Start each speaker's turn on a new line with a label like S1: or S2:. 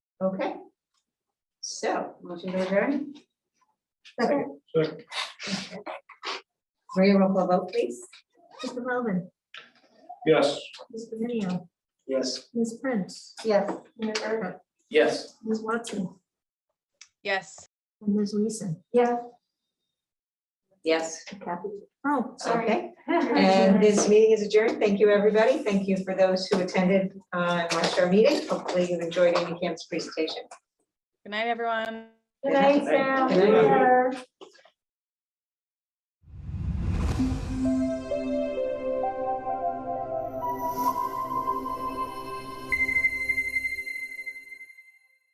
S1: Okay. So, motion to adjourn?
S2: Second.
S3: Second.
S1: Maria, roll call vote, please.
S2: Mr. Melvin,
S3: Yes.
S2: Mr. Minio,
S3: Yes.
S2: Ms. Prince,
S1: Yes.
S2: Mayor Verda,
S3: Yes.
S2: Ms. Watson,
S4: Yes.
S2: and Ms. Weason.
S1: Yeah. Yes.
S2: Oh, sorry.
S1: Okay, and this meeting is adjourned. Thank you, everybody. Thank you for those who attended uh, and watched our meeting. Hopefully you enjoyed Amy Camp's presentation.
S4: Good night, everyone.
S1: Good night, Sam.
S2: Take care.